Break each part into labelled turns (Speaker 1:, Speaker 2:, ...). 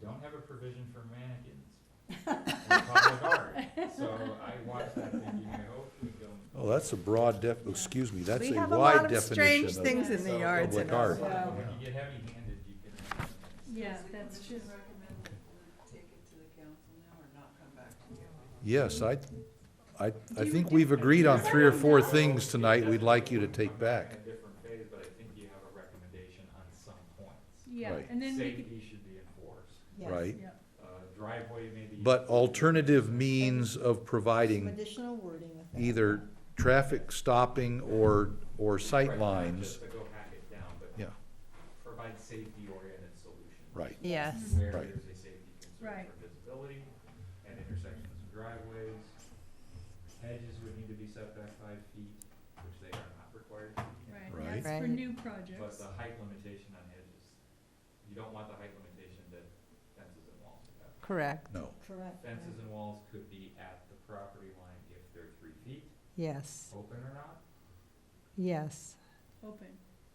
Speaker 1: don't have a provision for mannequins in public art. So I watched that thinking, I hope we don't.
Speaker 2: Oh, that's a broad def, excuse me, that's
Speaker 3: We
Speaker 2: a
Speaker 3: have a lot
Speaker 2: wide
Speaker 3: of strange
Speaker 2: definition
Speaker 3: things in the
Speaker 1: So-
Speaker 3: yards
Speaker 2: Public
Speaker 3: in
Speaker 2: art.
Speaker 3: our.
Speaker 1: When
Speaker 2: Yeah.
Speaker 1: you get heavy-handed, you can.
Speaker 4: Yeah, that's true.
Speaker 5: recommend that we take it to the council now or not come back to you?
Speaker 2: of, yes, I, I, I
Speaker 4: you
Speaker 2: think
Speaker 4: do-
Speaker 2: we've agreed on three or four
Speaker 4: No.
Speaker 2: things tonight we'd like you to take
Speaker 1: In
Speaker 2: back.
Speaker 1: a different phase, but I think you have a recommendation on some points.
Speaker 4: Yeah,
Speaker 2: Right.
Speaker 4: and then we could,
Speaker 1: Safety should be enforced,
Speaker 2: Right.
Speaker 4: yeah,
Speaker 1: uh, driveway maybe.
Speaker 2: But alternative means of
Speaker 3: Some
Speaker 2: providing
Speaker 3: additional wording with that.
Speaker 2: either traffic stopping or, or
Speaker 1: Right, not
Speaker 2: sight
Speaker 1: Just
Speaker 2: lines,
Speaker 1: to go hack it down, but
Speaker 2: yeah,
Speaker 1: provide safety-oriented solutions.
Speaker 2: right,
Speaker 3: Yes,
Speaker 1: Where
Speaker 2: Right.
Speaker 1: there's a safety concern
Speaker 4: Right.
Speaker 1: for visibility and intersections of driveways. Hedges would need to be set back five feet, which they are not required to be.
Speaker 4: right,
Speaker 2: Right.
Speaker 4: that's for
Speaker 3: Right.
Speaker 4: new
Speaker 1: But
Speaker 4: projects.
Speaker 1: the height limitation on hedges, you don't want the height limitation that fences and walls have.
Speaker 6: Correct,
Speaker 2: no,
Speaker 3: correct.
Speaker 1: Fences and walls could be at the property line if they're three feet,
Speaker 6: yes,
Speaker 1: open or not,
Speaker 6: yes.
Speaker 1: uh,
Speaker 4: Open,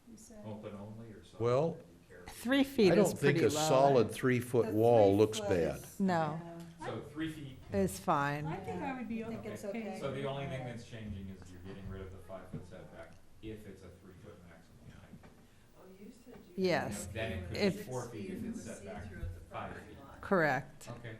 Speaker 4: you said.
Speaker 1: open only or something.
Speaker 2: Well,
Speaker 1: that you care.
Speaker 6: Three feet
Speaker 2: I
Speaker 6: is
Speaker 2: don't think
Speaker 6: pretty
Speaker 2: a
Speaker 6: low.
Speaker 2: solid three-foot wall looks bad.
Speaker 6: No.
Speaker 1: So three feet
Speaker 6: It's
Speaker 4: I
Speaker 6: fine,
Speaker 4: think I would be
Speaker 3: I think
Speaker 4: okay.
Speaker 3: it's okay.
Speaker 1: So the only thing that's changing is you're getting rid of the five foot setback if it's a three foot maximum height.
Speaker 5: Oh, you said you.
Speaker 6: Yes.
Speaker 1: Then it could
Speaker 6: be
Speaker 1: four feet if it's set back five feet.
Speaker 6: correct.
Speaker 1: Okay.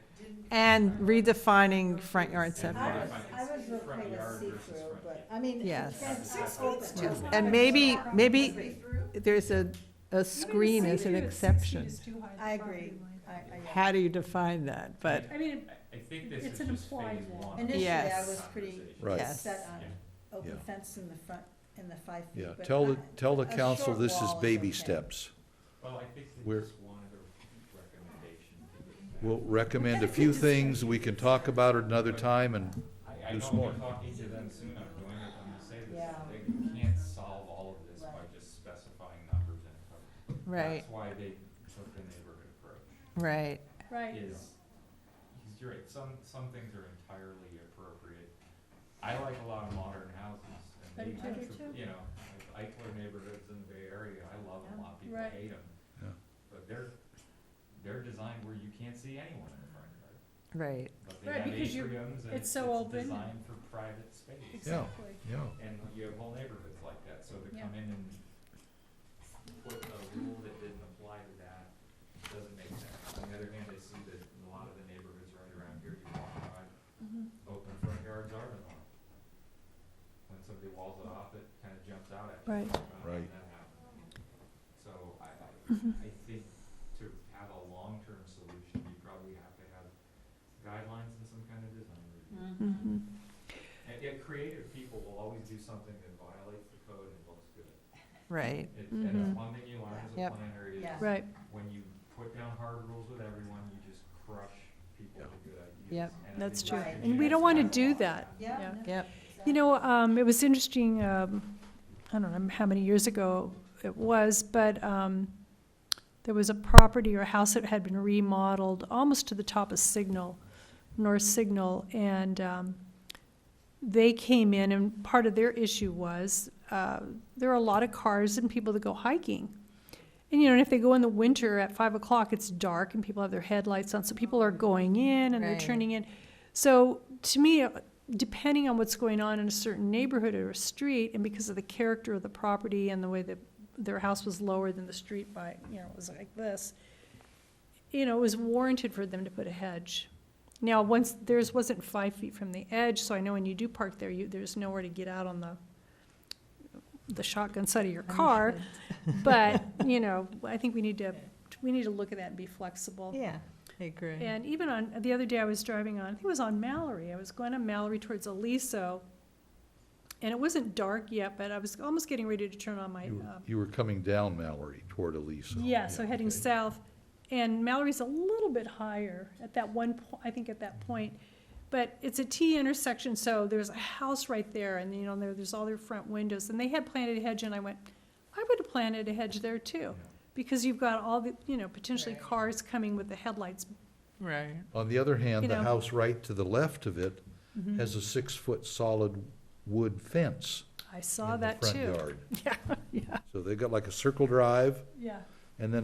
Speaker 6: And redefining front yard
Speaker 3: I
Speaker 6: setback.
Speaker 3: was, I was
Speaker 1: Front
Speaker 3: okay
Speaker 1: yard
Speaker 3: with
Speaker 1: versus
Speaker 3: see-through,
Speaker 1: front
Speaker 3: but,
Speaker 1: yard.
Speaker 3: I mean. it
Speaker 6: Yes.
Speaker 3: depends.
Speaker 1: Six
Speaker 3: Open.
Speaker 1: feet's too
Speaker 3: Yeah.
Speaker 6: And maybe, maybe
Speaker 5: Through?
Speaker 6: there's a, a screen is an exception.
Speaker 3: I agree. I- I- yeah.
Speaker 6: How do you define that? But,
Speaker 4: I mean,
Speaker 1: I, I think this
Speaker 4: It's
Speaker 1: is
Speaker 4: an
Speaker 1: just phase
Speaker 4: implied wall.
Speaker 1: one. of
Speaker 3: Initially, I
Speaker 6: Yes.
Speaker 3: was pretty
Speaker 1: conversation.
Speaker 2: Right.
Speaker 6: Yes.
Speaker 3: set on
Speaker 1: Yeah.
Speaker 3: open
Speaker 2: Yeah.
Speaker 3: fence in the front, in the five feet.
Speaker 2: Yeah,
Speaker 3: but
Speaker 2: tell the,
Speaker 3: I-
Speaker 2: tell the
Speaker 3: a
Speaker 2: council
Speaker 3: short
Speaker 2: this is
Speaker 3: wall is
Speaker 2: baby
Speaker 3: okay.
Speaker 2: steps.
Speaker 1: Well, I think they
Speaker 2: We're-
Speaker 1: just wanted a recommendation to get back.
Speaker 2: We'll recommend a few things, we can talk about it another time, and
Speaker 1: I, I
Speaker 2: do
Speaker 1: know
Speaker 2: some
Speaker 1: I'm
Speaker 2: more.
Speaker 1: talking to them soon, I'm doing it, I'm gonna say this,
Speaker 3: Yeah.
Speaker 1: they you can't solve all of this by
Speaker 3: Right.
Speaker 1: just specifying numbers and.
Speaker 6: right,
Speaker 1: That's why they took the neighborhood approach.
Speaker 6: right,
Speaker 4: right.
Speaker 1: is, he's- you're right, some, some things are entirely appropriate. I like a lot of modern houses
Speaker 4: I do
Speaker 1: and
Speaker 4: too.
Speaker 1: these, you know, like Eichler neighborhoods in the Bay Area, I love them, a lot of people
Speaker 4: Right.
Speaker 1: hate them.
Speaker 2: Yeah.
Speaker 1: But they're, they're designed where you can't see anyone in the front yard,
Speaker 6: right.
Speaker 1: but they
Speaker 4: Right,
Speaker 1: have
Speaker 4: because you're-
Speaker 1: atriums and
Speaker 4: it's
Speaker 1: it's
Speaker 4: so
Speaker 1: it's
Speaker 4: open.
Speaker 1: designed for private space.
Speaker 4: Exactly.
Speaker 2: yeah,
Speaker 1: And you have whole neighborhoods like that, so to
Speaker 4: Yeah.
Speaker 1: come in and put a rule that didn't apply to that doesn't make sense. On the other hand, I see that in a lot of the neighborhoods right around here, you walk by,
Speaker 4: Mhm.
Speaker 1: open front yards are the norm. When somebody walls it off, it kinda jumps out at you.
Speaker 6: Right.
Speaker 1: Uh,
Speaker 2: Right.
Speaker 1: that happened. So I, I, I think to have a long-term solution, you probably have to have guidelines and some kind of design review.
Speaker 6: Mhm.
Speaker 1: And yet creative people will always do something that violates the code and looks good.
Speaker 6: Right,
Speaker 1: It- And it's
Speaker 6: Mhm.
Speaker 1: one thing you learn as a
Speaker 6: Yep.
Speaker 1: planner
Speaker 3: Yeah.
Speaker 1: is
Speaker 6: right,
Speaker 1: when you put down hard rules with everyone, you just crush people with good ideas.
Speaker 6: Yep,
Speaker 1: And I
Speaker 4: that's
Speaker 1: think
Speaker 3: true.
Speaker 1: that's
Speaker 3: And
Speaker 1: the
Speaker 3: we
Speaker 1: chance
Speaker 4: don't wanna
Speaker 1: have a
Speaker 4: do
Speaker 1: lot.
Speaker 4: that.
Speaker 3: Yeah.
Speaker 4: Yeah.
Speaker 3: no,
Speaker 6: yep,
Speaker 3: exactly.
Speaker 4: You know, um, it was interesting, um, I don't know how many years ago it was, but, um, there was a property or a house that had been remodeled almost to the top of Signal, North Signal, and, um, they came in and part of their issue was, uh, there are a lot of cars and people that go hiking. And, you know, and if they go in the winter at five o'clock, it's dark and people have their headlights on, so people are going in and they're
Speaker 6: Right.
Speaker 4: turning in. So to me, uh, depending on what's going on in a certain neighborhood or a street, and because of the character of the property and the way that their house was lower than the street by, you know, it was like this, you know, it was warranted for them to put a hedge. Now, once, theirs wasn't five feet from the edge, so I know when you do park there, you, there's nowhere to get out on the, the shotgun side of your car, but, you know, I think we need to, we need to look at that and be flexible.
Speaker 6: yeah, I agree.
Speaker 4: And even on, the other day I was driving on, I think it was on Mallory, I was going on Mallory towards Aliso, and it wasn't dark yet, but I was almost getting ready to turn on my,
Speaker 2: You were-
Speaker 4: um,
Speaker 2: You were coming down Mallory toward Elisa.
Speaker 4: yeah, so heading
Speaker 2: okay.
Speaker 4: south, and Mallory's a little bit higher at that one po- I think at that
Speaker 2: Mm-hmm.
Speaker 4: point. But it's a T intersection, so there's a house right there, and you know, there, there's all their front windows, and they had planted a hedge, and I went, I would have planted a hedge there too, because you've got all the, you know, potentially
Speaker 6: Right.
Speaker 4: cars coming with the headlights.
Speaker 6: Right,
Speaker 2: On the other hand, the
Speaker 4: You know. Mm-hmm.
Speaker 2: house right to the left of it
Speaker 6: Mm-hmm.
Speaker 2: has a six-foot solid wood fence
Speaker 4: I
Speaker 2: in
Speaker 4: saw
Speaker 2: the
Speaker 4: that
Speaker 2: front
Speaker 4: too.
Speaker 2: yard.
Speaker 4: Yeah, yeah,
Speaker 2: So they've got like a circle drive
Speaker 4: yeah.
Speaker 2: and then